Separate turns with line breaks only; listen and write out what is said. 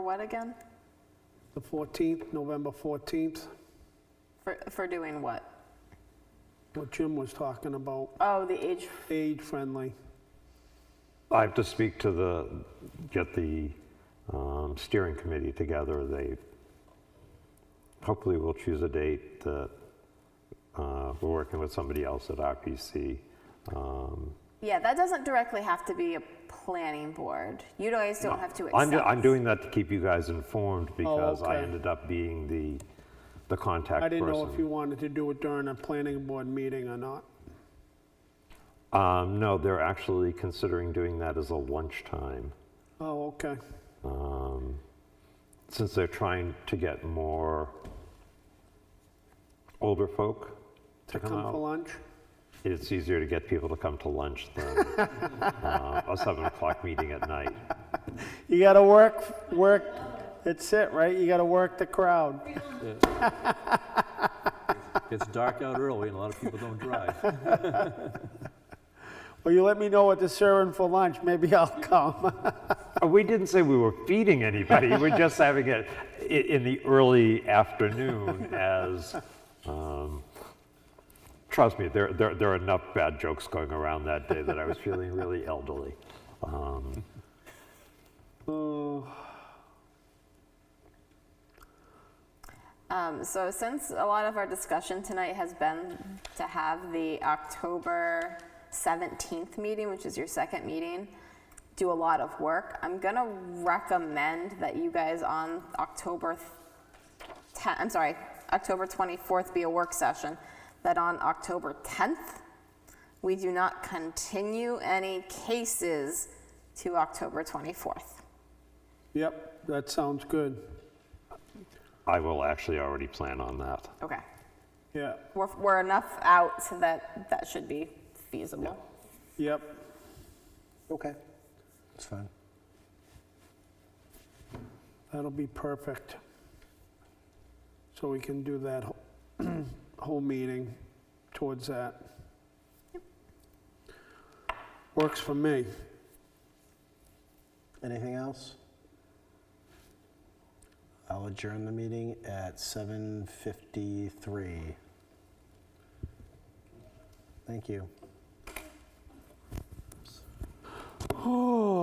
what again?
The 14th, November 14th,
For, for doing what?
what Jim was talking about,
Oh, the age,
age-friendly.
I have to speak to the, get the um, steering committee together. They, hopefully we'll choose a date that, uh, we're working with somebody else at RPC. Um,
yeah, that doesn't directly have to be a planning board. You guys don't have to
I'm,
accept.
ju- I'm doing that to keep you guys informed because I
Oh, okay.
ended up being the, the contact
I
person.
didn't know if you wanted to do it during a planning board meeting or not.
Um, no, they're actually considering doing that as a lunchtime.
Oh, okay.
um, since they're trying to get more older folk to
To
come
come for
out,
lunch?
it's easier to get people to come to lunch than uh, a seven o'clock meeting at night.
You got to work, work, that's it, right? You got to work the crowd.
It's dark out early and a lot of people don't drive.
Well, you let me know what they're serving for lunch, maybe I'll come.
Uh, We didn't say we were feeding anybody, we're just having it i- in the early afternoon as, um, trust me, there, there, there are enough bad jokes going around that day that I was feeling really elderly. Um,
Um, so since a lot of our discussion tonight has been to have the October 17th meeting, which is your second meeting, do a lot of work, I'm gonna recommend that you guys on October th- 10, I'm sorry, October 24th be a work session, that on October 10th, we do not continue any cases to October 24th.
Yep, that sounds good.
I will actually already plan on that.
Okay.
Yeah,
We're, we're enough out so that that should be feasible.
yep.
Okay. That's fine.
That'll be perfect. So we can do that wh- whole meeting towards that. Works for me.
Anything else? I'll adjourn the meeting at 7:53. Thank you.